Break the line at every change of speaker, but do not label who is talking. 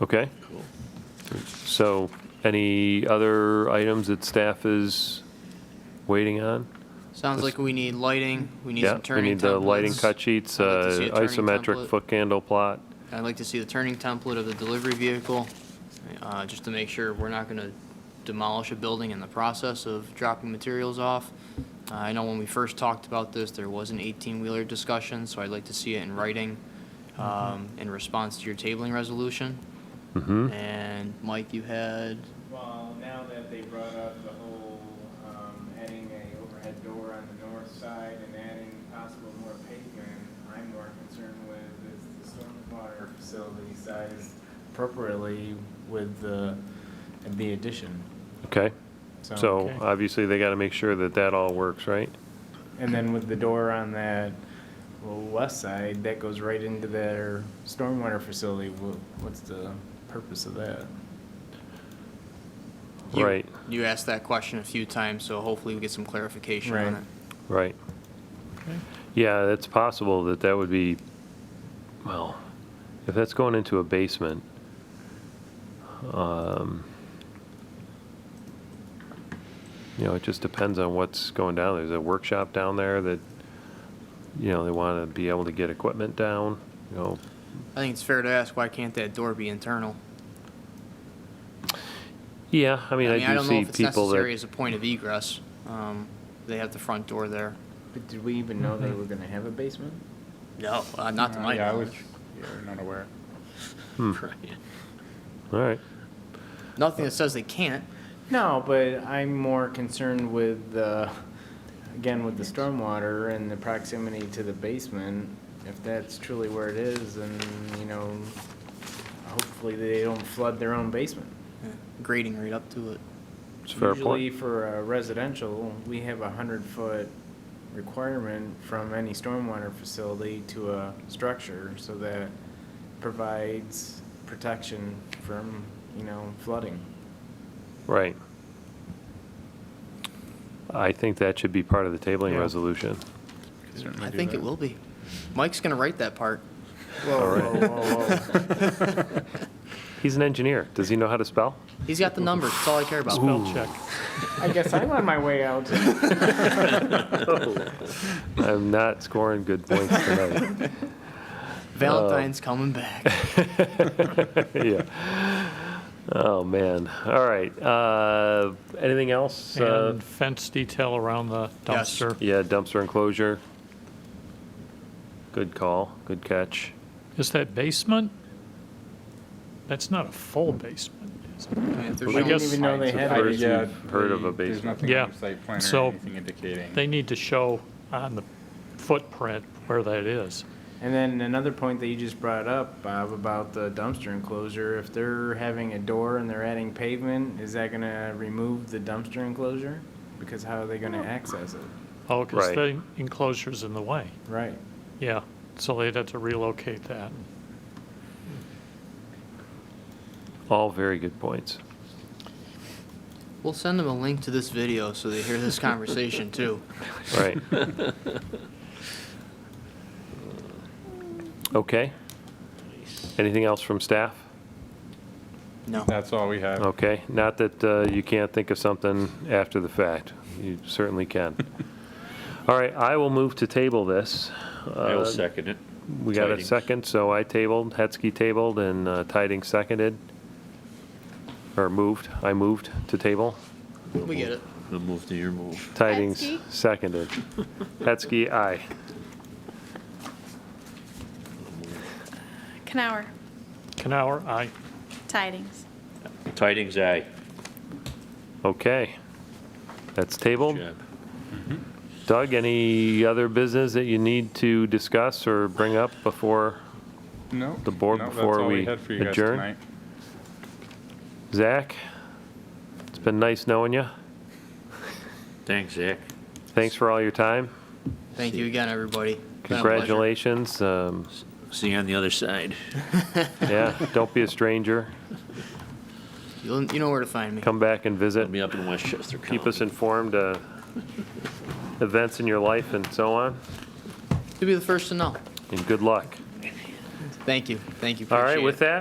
Okay. So any other items that staff is waiting on?
Sounds like we need lighting, we need
Yeah,
some
we
turning
need the lighting
templates.
cut sheets,
I'd like to
uh,
see a turning
isometric
template.
foot candle plot.
I'd like to see the turning template of the delivery vehicle, uh, just to make sure we're not gonna demolish a building in the process of dropping materials off. Uh, I know when we first talked about this, there was an eighteen-wheeler discussion, so I'd like to see it in writing, um, in response to your tabling resolution. Mm-hmm.
Mhm.
And Mike, you had,
Well, now that they brought up the whole, um, adding a overhead door on the north side and adding possible more pavement, I'm more concerned with is the stormwater facility size appropriately with the, and the addition,
Okay,
so.
so obviously they got to make sure that that all works, right?
And then with the door on that west side, that goes right into their stormwater facility, Wha- what's the purpose of that?
you-
Right.
You asked that question a few times, so hopefully we get some clarification on it.
Right.
Right. Yeah, it's possible that that would be, well, if that's going into a basement, um, you know, it just depends on what's going down. There's a workshop down there that, you know, they want to be able to get equipment down, you know.
I think it's fair to ask, why can't that door be internal?
Yeah, I mean,
I mean, I
I do
don't know
see
if it's
people
necessary
that,
as a point of egress. Um, They have the front door there.
But did we even know they were gonna have a basement?
No, uh, not to my
Yeah, I was,
knowledge.
yeah, not aware.
Hmm.
Right.
all right,
Nothing that says they can't.
No, but I'm more concerned with the, again, with the stormwater and the proximity to the basement. If that's truly where it is, and, you know, hopefully they don't flood their own basement.
Grading right up to it.
it's a fair
Usually
point.
for a residential, we have a hundred-foot requirement from any stormwater facility to a structure, so that provides protection from, you know, flooding.
Right. I think that should be part of the tabling
Yeah.
resolution.
Could certainly
I
do
think
that.
it will be. Mike's going to write that part.
Whoa,
All right.
whoa, whoa, whoa.
He's an engineer. Does he know how to spell?
He's got the numbers. That's all I care about.
Spell check.
I guess I'm on my way out.
I'm not scoring good points tonight.
Uh,
Valentine's coming back.
yeah. Oh man. All right. Uh, anything else? Uh,
And fence detail around the
Yes.
dumpster.
yeah, dumpster enclosure. Good call. Good catch.
Is that basement? That's not a full basement. is it?
I mean, if there's
I
no-
guess-
Even though they had
First
it.
Yeah. we've heard of a
the- There's
basement.
nothing
Yeah.
on the site plan or
So
anything indicating.
They need to show on the footprint where that is.
And then another point that you just brought up, Bob, about the dumpster enclosure, if they're having a door and they're adding pavement, is that gonna remove the dumpster enclosure? Because how are they gonna access it?
Oh,
Right.
because the enclosure's in the way.
Right.
Yeah, so they'd have to relocate that.
All very good points.
We'll send them a link to this video so they hear this conversation too.
Right. okay. Anything else from staff?
No.
That's all we have.
Okay. Not that uh, you can't think of something after the fact. You certainly can. All right. I will move to table this.
I will
Uh,
second it.
We got a
Tidings.
second, so I tabled, Hetzke tabled, and uh, Tidings seconded, or moved, I moved to table.
We get it.
The move to your move.
Tidings
Hetzke?
seconded. Hetzke, aye.
Canower,
Canower, aye.
tidings.
Tidings, aye.
Okay. That's tabled.
Good job.
Mm-hmm.
Doug, any other business that you need to discuss or bring up before?
No.
The board
no, that's
before
all
we
had for you guys
adjourn?
tonight.
Zach? It's been nice knowing you.
Thanks, Zach.
Thanks for all your time.
Thank you again, everybody. Been a pleasure.
Congratulations. Um,
See you on the other side.
Yeah, don't be a stranger.
You'll- You know where to find me.
Come back and visit.
I'll be up in Westchester County.
keep us informed, uh, events in your life and so on,
You'll be the first to know.
and good luck.
Thank you. Thank you.
All right,
Appreciate
with
it.
that,